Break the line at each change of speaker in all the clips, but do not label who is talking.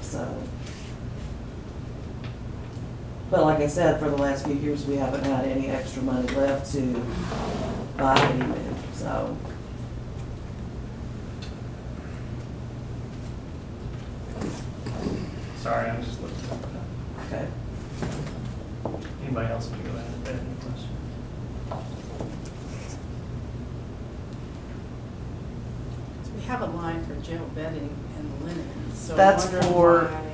so. But like I said, for the last few years, we haven't had any extra money left to buy anything, so.
Sorry, I'm just looking. at
Okay.
that. Anybody else want to go ahead and add any questions?
We have a line for jail bedding and linen, so. I'm
That's
wondering
for-
why-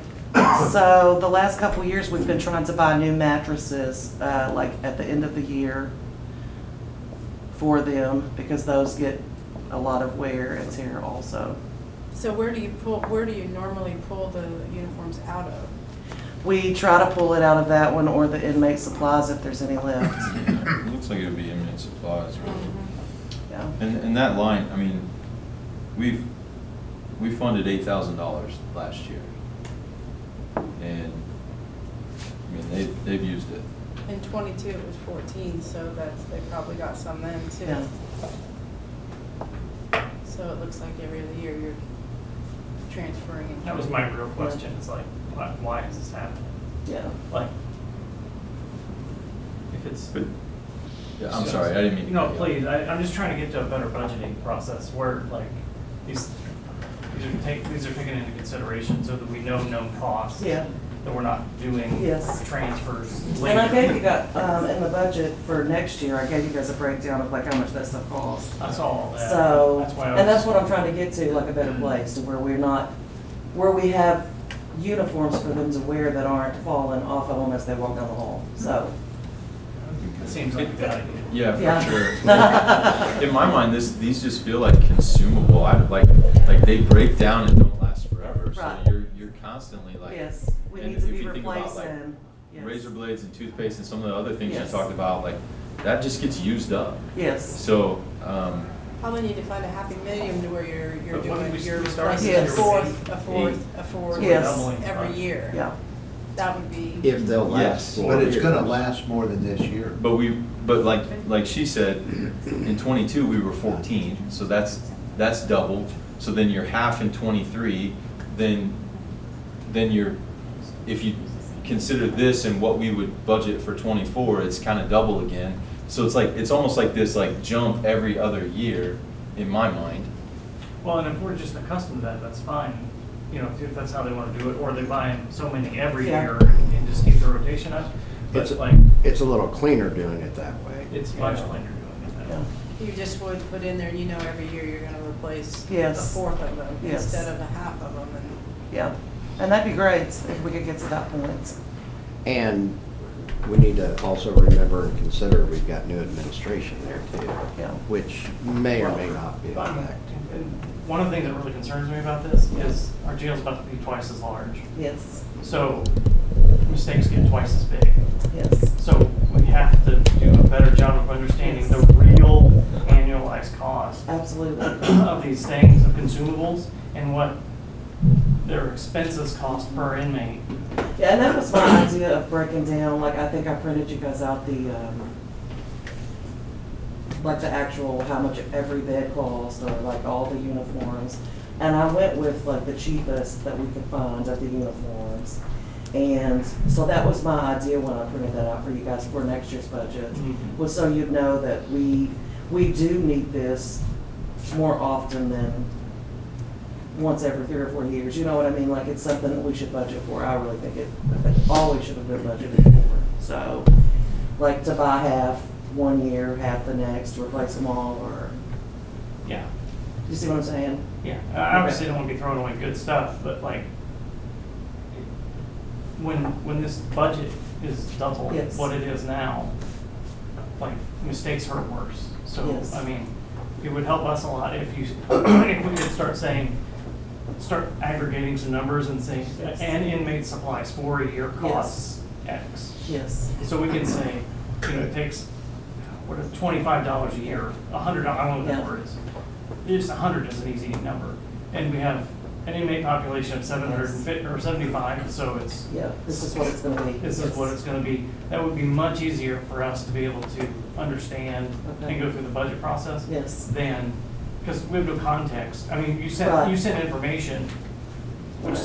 So the last couple of years, we've been trying to buy new mattresses, uh, like at the end of the year for them, because those get a lot of wear and tear also.
So where do you pull, where do you normally pull the uniforms out of?
We try to pull it out of that one or the inmate supplies if there's any left.
Looks like it would be inmate supplies, really.
Yeah.
And, and that line, I mean, we've, we funded eight thousand dollars last year. And, I mean, they, they've used it.
In twenty-two, it was fourteen, so that's, they probably got some then
Yeah.
too. So it looks like every other year you're transferring. and-
That was my real question, is like, why, why is this happening?
Yeah.
Like, if it's.
But, yeah, I'm sorry, I didn't mean. to
No,
cut you off.
please, I, I'm just trying to get to a better budgeting process where like, these, these are take, these are taken into consideration so that we know known costs.
Yeah.
That we're not doing.
Yes.
Transfers
And
later.
I gave you guys, um, in the budget for next year, I gave you guys a breakdown of like how much that stuff costs.
I saw all that.
So,
That's why I was. Mm-hmm.
and that's what I'm trying to get to, like a better place, to where we're not, where we have uniforms for them to wear that aren't falling off of them as they walk down the hall,
Mm-hmm.
so.
It seems like a good idea.
Yeah,
Yeah.
for sure. In my mind, this, these just feel like consumable, I, like, like they break down and don't last forever, so
Right.
you're, you're constantly like.
Yes, we
and
need to
if
be
you think about, like,
replacing, yes.
Razor blades and toothpaste and some of the other things you
Yes.
talked about, like, that just gets used up.
Yes,
So, um,
Probably need to find a happy medium to where you're, you're
But why don't
doing,
we
you're
start
replacing a
with
fourth,
eight?
a fourth, a fourth
Yes.
Doubling.
every year.
yeah,
That would be.
If they'll last,
Yes, for
but it's gonna
years.
last more than this year.
but we, but like, like she said, in twenty-two, we were fourteen, so that's, that's double. So then you're half in twenty-three, then, then you're, if you consider this and what we would budget for twenty-four, it's kind of double again. So it's like, it's almost like this like jump every other year, in my mind.
Well, and if we're just accustomed to that, that's fine, you know, if that's how they wanna do it, or they buy in so many every
Yeah.
year and just keep the rotation up. But
It's-
like,
It's a little cleaner doing it that way.
it's much later doing it
yeah,
now.
You just would put in there, you know, every year you're gonna replace a
Yes.
fourth of them
Yes.
instead of a half of them and.
yeah. And that'd be great if we could get to that point.
And we need to also remember and consider, we've got new administration there too.
Yeah.
Which may or may not be a
Um,
fact.
and One of the things that really concerns me about this is our jail's about to be twice as large,
Yes,
so mistakes get twice as big.
yes,
So we have to do a better job of understanding the real annualized cost
absolutely,
of these things, of consumables, and what their expenses cost per inmate.
Yeah, and that was my idea of breaking down, like, I think I printed you guys out the, um, like the actual, how much every bed cost, or like all the uniforms. And I went with like the cheapest that we could find of the uniforms. And so that was my idea when I printed that out for you guys for next year's budget,
Mhm.
was so you'd know that we, we do need this more often than once every three or four years, you know what I mean? Like, it's something that we should budget for. I really think it, it always should have been budgeted for. So, like, to buy half one year, half the next, replace them all, or,
Yeah,
you see what I'm saying?
yeah. I obviously don't want to be throwing away good stuff, but like, when, when this budget is double
Yes.
what it is now, like, mistakes hurt worse. So,
Yes.
I mean, it would help us a lot if you, if we could start saying, start aggregating some numbers and saying,
Yes.
an inmate supplies for a year costs X.
Yes,
So we can say, you know, it takes, what, is twenty-five dollars a year, a hundred, I don't know what the
Yeah.
number is. Just a hundred is an easy number. And we have an inmate population of seven hundred and fifty, or seventy-five, so it's,
yeah, this is what it's gonna be.
this is what it's gonna be. That would be much easier for us to be able to understand
Okay.
and go through the budget process
Yes,
than, because we have no context. I mean, you sent,
Right.
you sent information, which is
Right.